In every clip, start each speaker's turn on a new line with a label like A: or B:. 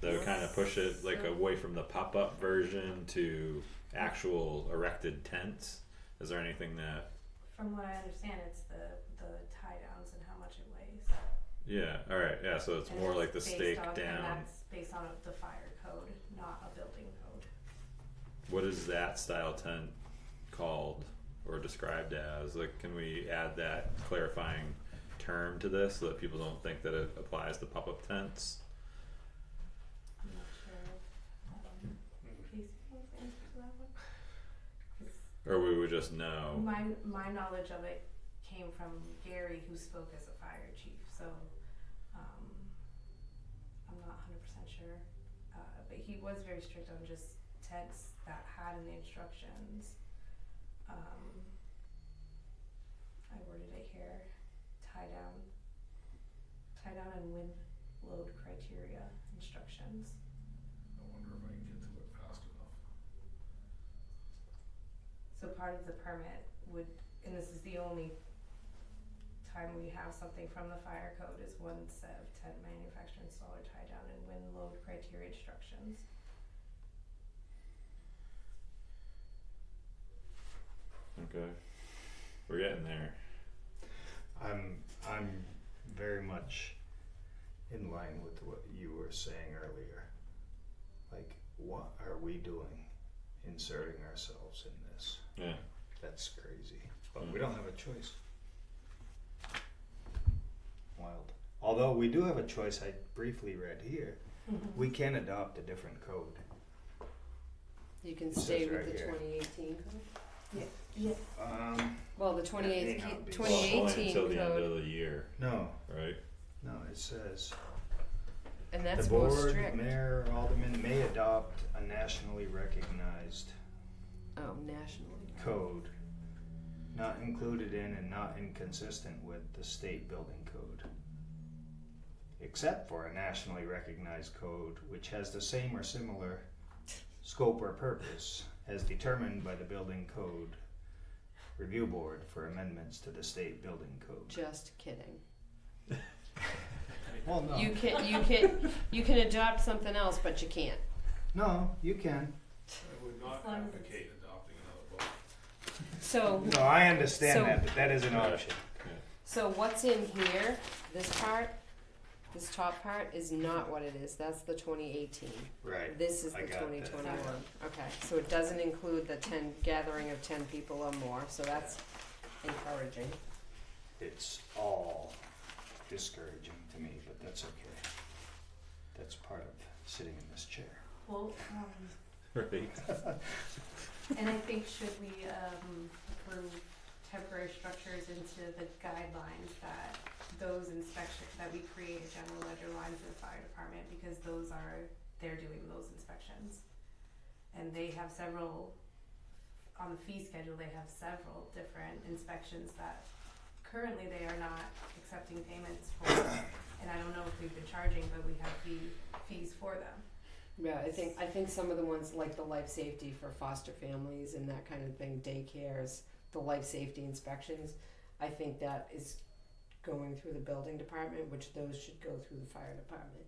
A: They'll kind of push it like away from the pop up version to actual erected tents. Is there anything that
B: From what I understand, it's the the tie downs and how much it weighs.
A: yeah, all right, yeah, so it's
B: And
A: more like the
B: based
A: stake
B: on- And
A: down.
B: that's based on the fire code, not a building code.
A: What is that style tent called or described as? Like can we add that clarifying term to this so that people don't think that it applies to pop up tents?
B: I'm not sure. Um, Casey wants to answer to that one. 'Cause
A: Or we would just know.
B: My my knowledge of it came from Gary, who spoke as a fire chief. So um, I'm not 100 percent sure, uh, but he was very strict on just tents that had in the instructions. Um, I worded it here: tie down, tie down, and wind load criteria instructions.
C: I wonder if I can get to it fast enough.
B: So part of the permit would, and this is the only time we have something from the fire code is one set of tent manufacturer, installer, tie down and wind load criteria instructions. Mm-hmm.
A: Okay. We're getting there.
D: I'm I'm very much in line with what you were saying earlier. Like what are we doing inserting ourselves in this?
A: Yeah.
D: That's crazy. But we don't have a choice. Wild. Although we do have a choice I briefly read here.
E: Mm-hmm.
D: We can adopt a different code.
E: You can
D: It says
E: stay with
D: right
E: the
D: here.
E: twenty eighteen code?
B: Yeah.
D: Um
E: Well, the twenty
D: may not be.
A: Well, it's only
E: 2018
A: until the end
E: code,
A: of the year,
D: no,
A: right?
D: no, it says
E: and that's
D: the
E: more
D: board,
E: strict.
D: mayor, alderman may adopt a nationally recognized
E: Oh, nationally.
D: code not included in and not inconsistent with the state building code. Except for a nationally recognized code which has the same or similar scope or purpose as determined by the building code review board for amendments to the state building code.
E: Just kidding.
D: Well, no,
E: You can you can you can adopt something else, but you can't.
D: no, you can.
C: I would not
B: As long as
C: advocate adopting another book.
E: So
D: No, I understand
E: So-
D: that, but that is an option.
E: so what's in here? This part, this top part is not what it is. That's the twenty eighteen.
D: Right.
E: This is
D: I
E: the
D: got that.
E: twenty twenty one. Okay, so it doesn't include the ten gathering of ten people or more. So that's encouraging.
D: It's all discouraging to me, but that's okay. That's part of sitting in this chair.
B: Well, um,
A: Right.
B: and I think should we um approve temporary structures into the guidelines that those inspection, that we create a general ledger line for the fire department because those are, they're doing those inspections. And they have several, on the fee schedule, they have several different inspections that currently they are not accepting payments for. And I don't know if we've been charging, but we have fee, fees for them.
E: Yeah, I think I think some of the ones like the life safety for foster families and that kind of thing, daycares, the life safety inspections, I think that is going through the building department, which those should go through the fire department.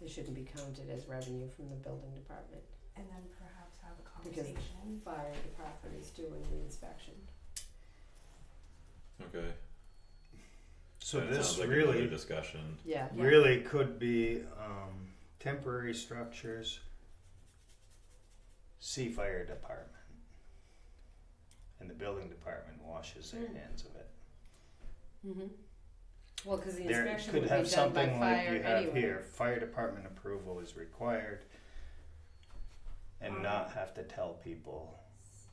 E: They shouldn't be counted as revenue from the building department.
B: And then perhaps have a
E: Because-
B: conversation.
E: Fire department is doing the inspection.
A: Okay.
D: So
A: That
D: this
A: sounds like another
D: really,
A: discussion.
E: Yeah.
D: really could be um, temporary structures, sea fire department. And the building department washes their
E: Mm.
D: hands of it.
E: Mm-hmm. Well, because the
D: There
E: inspection
D: could
E: would be
D: have
E: done by
D: something like
E: fire
D: you
E: anyway.
D: have here, fire department approval is required. And
B: Um,
D: not have to tell people,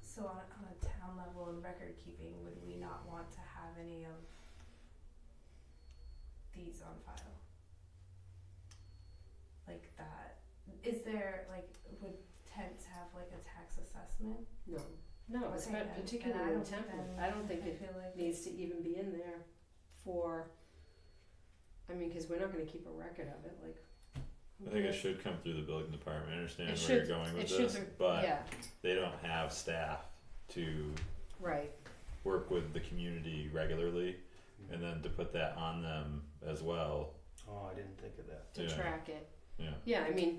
B: So on, on a town level and record keeping, would we not want to have any of these on file? Like that, is there, like, would tents have like a tax assessment?
E: No. No, it's
B: Okay,
E: not
B: then- then I
E: particularly in
B: don't-
E: template.
B: then
E: I don't think
B: I
E: it
B: feel like
E: needs to even be in there for, I mean, because we're not gonna keep a record of it, like. who
A: I think it
E: cares?
A: should come through the building department. I understand
E: It
A: where
E: should-
A: you're going with
E: it should
A: this,
E: re-
A: but
E: Yeah,
A: they don't have staff to
E: right,
A: work with the community regularly, and then to put that on them as well.
D: oh, I didn't think of that.
E: to
A: Yeah.
E: track it,
A: yeah.
E: Yeah, I mean,